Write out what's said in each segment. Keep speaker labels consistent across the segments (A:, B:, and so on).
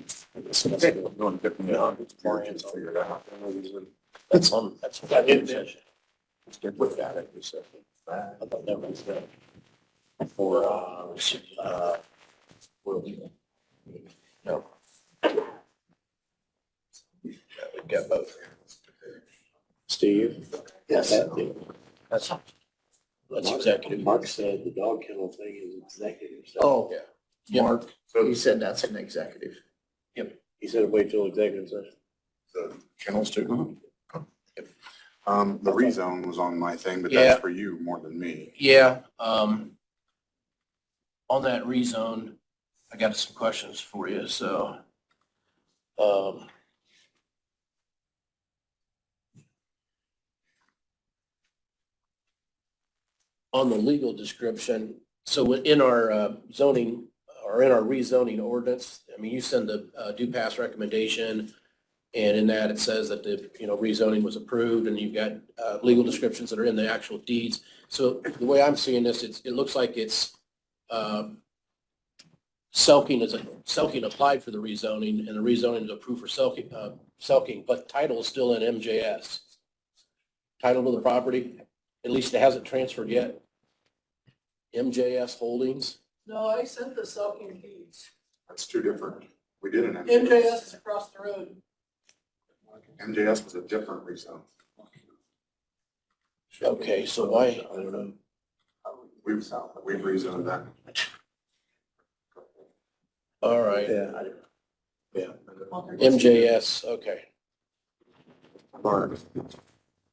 A: Doing different, uh, plans, figure it out.
B: That's on, that's what I did then.
A: Look at it, you said.
B: I thought that was the, for, uh, uh, well, you no. We got both.
C: Steve?
B: Yes. That's, that's executive.
C: Mark said the dog kennel thing is executive. session.
B: Oh,
A: Yeah.
B: yeah, he said that's an executive.
C: He said wait till executive session. Mm-hmm.
D: The kennels too? Um, the rezone was on my thing, but
B: Yeah.
D: that's for you more than me.
B: Yeah, um, on that rezone, I got some questions for you, so, um, on the legal description, so in our uh, zoning, or in our rezoning ordinance, I mean, you send the uh, due pass recommendation, and in that it says that the, you know, rezoning was approved, and you've got, uh, legal descriptions that are in the actual deeds. So the way I'm seeing this, it's, it looks like it's, um, Selking is, a- Selking applied for the rezoning and the rezoning is approved for Selking, uh, Selking, but title is still in MJS. Title to the property, at least it hasn't transferred yet. MJS Holdings,
E: No, I sent the Selking deeds.
D: That's two different. We did an
E: MJS is across the road.
D: MJS was a different rezone.
B: okay, so why,
C: I don't know.
D: We've, we've rezoned that.
B: all right,
C: Yeah. I don't-
B: MJS, okay.
D: Mark.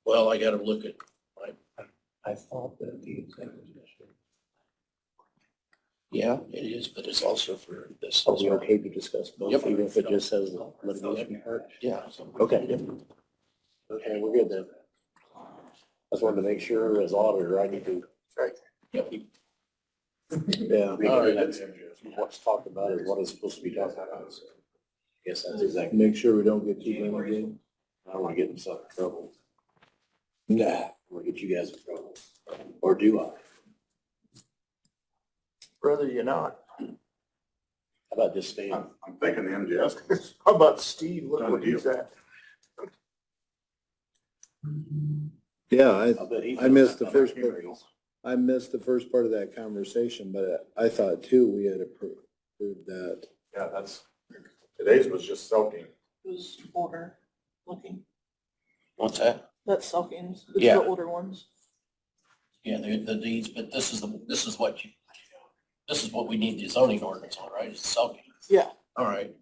B: Well, I gotta look at,
C: I thought that the executive session.
B: yeah, it is, but it's also for this.
C: So we're okay to discuss both,
B: Yep.
C: even if it just says litigation part?
B: Yeah.
C: Okay. Okay, we're good then. I just wanted to make sure as auditor, I need to.
B: Yep.
C: Yeah.
B: All right.
C: What's talked about is what is supposed to be talked about. Yes, that's exactly. Make sure we don't get too many again. I don't want to get myself in trouble. Nah. We'll get you guys in trouble. Or do I? How
A: Brother, you're not.
C: about just staying?
D: I'm I'm thinking the MJS was
A: How about Steve? Look
D: Done
A: what he's
D: deal.
A: at.
F: Yeah, I,
C: I'll bet he
F: I missed the
C: feels
F: first
C: that about you.
F: I missed the first part of that conversation, but I thought too, we had appro- approved that.
D: Yeah, that's, today's was just soaking.
E: Who's older looking?
B: What's that?
E: That's Selking's.
B: the Yeah.
E: older ones.
B: Yeah, the, the deeds, but this is the, this is what you, this is what we need the zoning ordinance on, right? It's selling.
E: Yeah.
B: All right,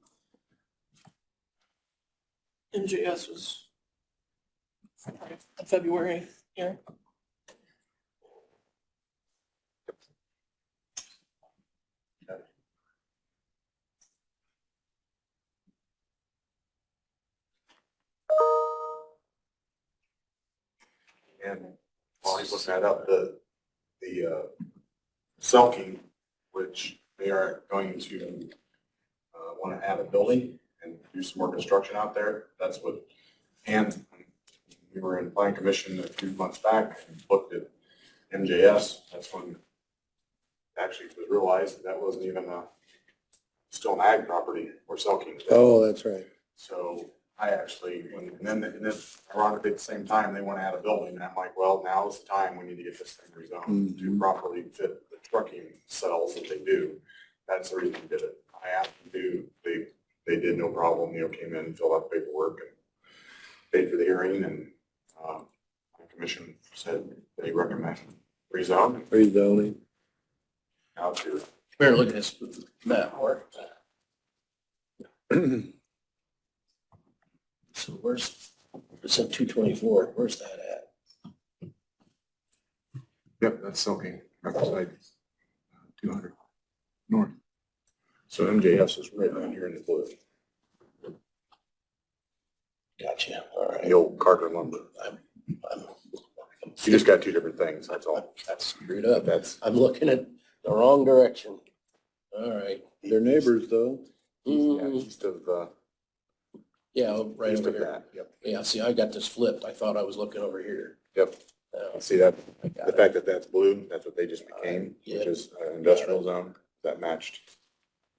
E: MJS was uh, February here.
D: And while he's looking that up, the, the, uh, Selkie, which they are going to, uh, want to add a building and do some more construction out there. That's what, and we were in plan commission a few months back, and looked at MJS. That's when it actually was realized that that wasn't even a, still an ag property or Selkie.
F: Oh, that's right.
D: So I actually, when- and then, and then ironically, at the same time, they want to add a building, and I'm like, well, now's the time, we need to get this thing rezoned to
F: Mhm.
D: properly fit the trucking cells that they do. That's the reason we did it. I asked them to, they, they did no problem, you know, came in, filled out the paperwork, and paid for the hearing, and, um, the commission said they recommend rezone
F: Rezoning.
D: out to
B: here, look at this map. Mark. So where's, it's in two twenty-four, where's that at?
D: Yep, that's Selkie, right beside uh, two hundred north. So MJS is right down here in the blue,
B: Gotcha, all right.
D: the old Carter lumber.
B: I'm-
D: You just got two different things, that's
B: I'm-
D: all.
B: I'm screwed up.
D: That's,
B: I'm looking at the wrong direction. All right.
F: They're neighbors though.
D: yeah,
B: Mm,
D: east of, uh,
B: Yeah, right
D: east
B: over
D: of
B: here.
D: that, yep,
B: Yeah, see, I got this flipped. I thought I was looking over here.
D: yep.
B: Oh,
D: See that,
B: I got
D: the
B: it. Uh,
D: fact that that's blue, that's what they just became,
B: Yeah.
D: which is an industrial zone that matched